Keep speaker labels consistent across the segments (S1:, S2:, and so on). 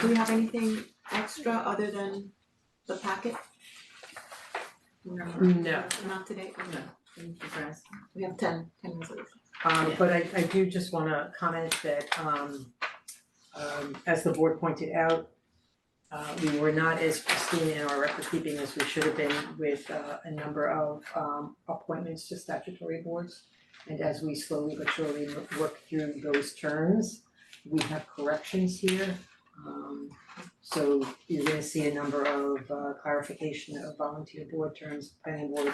S1: do we have anything extra other than the packet? No.
S2: No.
S1: Not today, okay.
S2: No. Thank you for asking.
S1: We have ten, ten resolutions.
S3: Um
S2: Yeah.
S3: but I I do just wanna comment that um um as the board pointed out, uh we were not as pristine in our record keeping as we should have been with uh a number of um appointments to statutory boards. And as we slowly but surely wo- work through those terms, we have corrections here. Um so you're gonna see a number of uh clarification of volunteer board terms, planning board,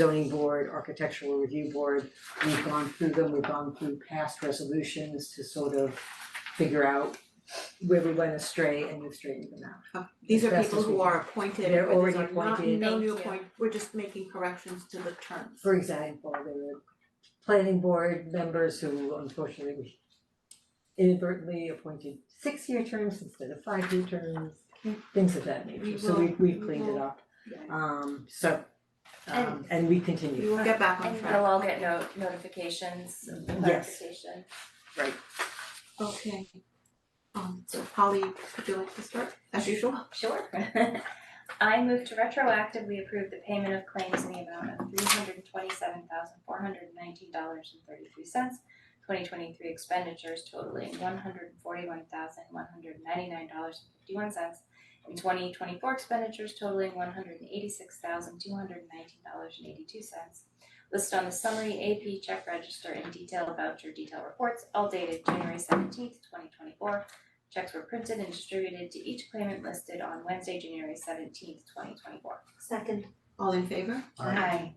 S3: zoning board, architectural review board, we've gone through them, we've gone through past resolutions to sort of figure out where we went astray and we've straightened them out.
S1: Uh, These
S3: As
S1: are
S3: best
S1: people
S3: as we
S1: who
S3: can.
S1: are appointed,
S3: They're
S1: but these
S3: already
S1: are not,
S3: appointed.
S1: no new
S4: Thank you.
S1: appoint, we're just making corrections to the terms.
S3: For example, there were planning board members who unfortunately we inadvertently appointed six-year terms instead of five-year terms, things of that
S1: We
S3: nature, so
S1: will-
S3: we we've
S1: we
S3: cleaned it
S1: will-
S3: up.
S1: Yeah.
S3: Um so um and we continue.
S1: We will get back on
S4: And
S1: track.
S4: they'll all get no notifications of the
S3: Yes.
S4: clarification.
S1: Okay. Um, so Polly, would you like to start, as usual?
S4: Sure. I move to retroactively approve the payment of claims in the amount of three hundred and twenty-seven thousand, four hundred and nineteen dollars and thirty-three cents. Twenty twenty-three expenditures totaling one hundred and forty-one thousand, one hundred and ninety-nine dollars and fifty-one cents. And twenty twenty-four expenditures totaling one hundred and eighty-six thousand, two hundred and nineteen dollars and eighty-two cents. Listed on the summary AP check register and detailed voucher detail reports, all dated January seventeenth, twenty twenty-four. Checks were printed and distributed to each claimant listed on Wednesday, January seventeenth, twenty twenty-four.
S5: Second,
S1: All in favor?
S4: Aye.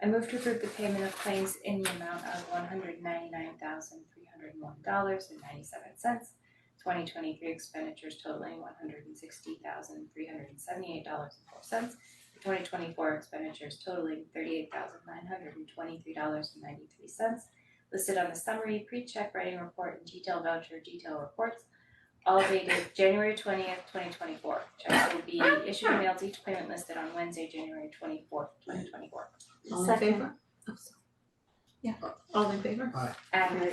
S4: I move to approve the payment of claims in the amount of one hundred ninety-nine thousand three hundred and one dollars and ninety-seven cents. Twenty twenty-three expenditures totaling one hundred and sixty thousand three hundred and seventy-eight dollars and four cents. Twenty twenty-four expenditures totaling thirty-eight thousand nine hundred and twenty-three dollars and ninety-three cents. Listed on the summary pre-check writing report and detailed voucher detail reports. All dated January twentieth, twenty twenty-four. Checks will be issued and mailed to each claimant listed on Wednesday, January twenty-fourth, twenty twenty-four.
S1: All in
S5: Second.
S1: favor? Oh, sorry. Yeah, all in favor?
S4: And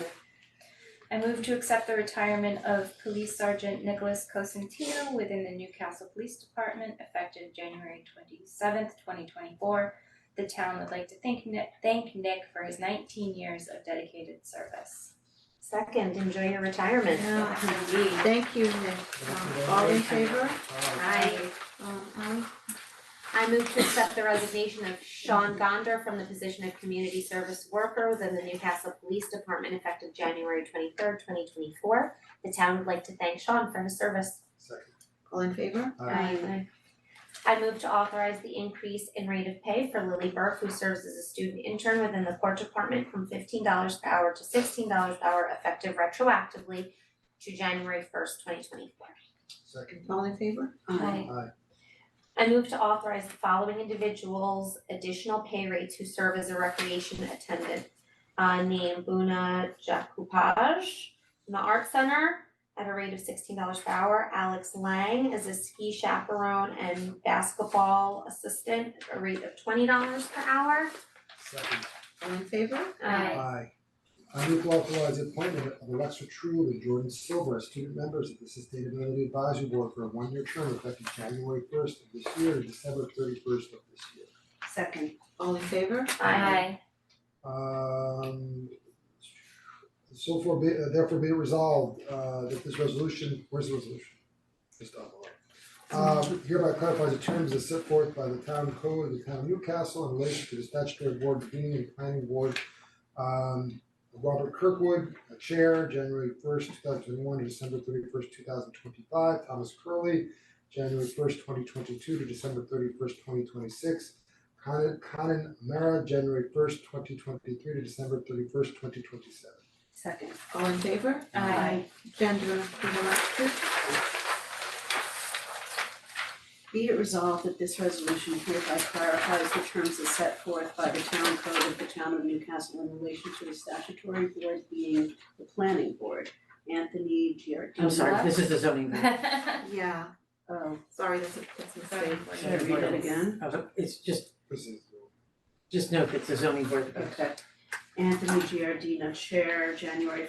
S4: I move to accept the retirement of Police Sergeant Nicholas Cosentino within the Newcastle Police Department effective January twenty-seventh, twenty twenty-four. The town would like to thank Nick, thank Nick for his nineteen years of dedicated service.
S5: second, enjoy your retirement.
S1: Yeah.
S4: Indeed.
S1: Thank you, Nick. Um, all in favor?
S4: Aye.
S1: Um, Ally?
S5: I move to accept the resignation of Sean Gonder from the position of community service worker within the Newcastle Police Department effective January twenty-third, twenty twenty-four. The town would like to thank Sean for his service.
S6: Second.
S1: all in favor?
S5: Aye. I move to authorize the increase in rate of pay for Lily Burke, who serves as a student intern within the court department from fifteen dollars per hour to sixteen dollars per hour effective retroactively to January first, twenty twenty-four.
S6: Second.
S1: All in favor?
S4: Aye.
S6: Aye.
S5: I move to authorize the following individuals additional pay rates who serve as a recreation attendant. Uh, named Buna Jakupaj from the Art Center at a rate of sixteen dollars per hour. Alex Lang as a ski chaperone and basketball assistant at a rate of twenty dollars per hour.
S6: Second.
S1: All in favor?
S5: Aye.
S6: Aye. I move to authorize the appointment of Alexa True and Jordan Silver as student members of the Sustainability Advisory Board for a one-year term effective January first of this year and December thirty-first of this year.
S2: Second.
S1: All in favor?
S4: Aye.
S6: Um, so for be, uh, therefore be it resolved, uh, that this resolution, where's the resolution? Just down below. Um, hereby clarifies the terms as set forth by the town code of the town of Newcastle in relation to the statutory board convening and planning board. Um, Robert Kirkwood, a chair, January first, two thousand twenty-one, to December thirty-first, two thousand twenty-five, Thomas Curley, January first, twenty twenty-two to December thirty-first, twenty twenty-six, Conan Conan Mara, January first, twenty twenty-three to December thirty-first, twenty twenty-seven.
S2: Second.
S1: All in favor?
S4: Aye.
S1: Jen, do you wanna do the last two?
S2: Be it resolved that this resolution hereby clarifies the terms as set forth by the town code of the town of Newcastle in relation to the statutory board being the planning board. Anthony Giardina.
S3: I'm sorry, this is the zoning board.
S1: Yeah,
S2: Oh,
S1: sorry, that's a, that's a mistake.
S3: Should I read it
S2: again?
S3: Uh, It's just,
S6: This is
S3: just note that the zoning board,
S2: okay. Anthony Giardina, Chair, January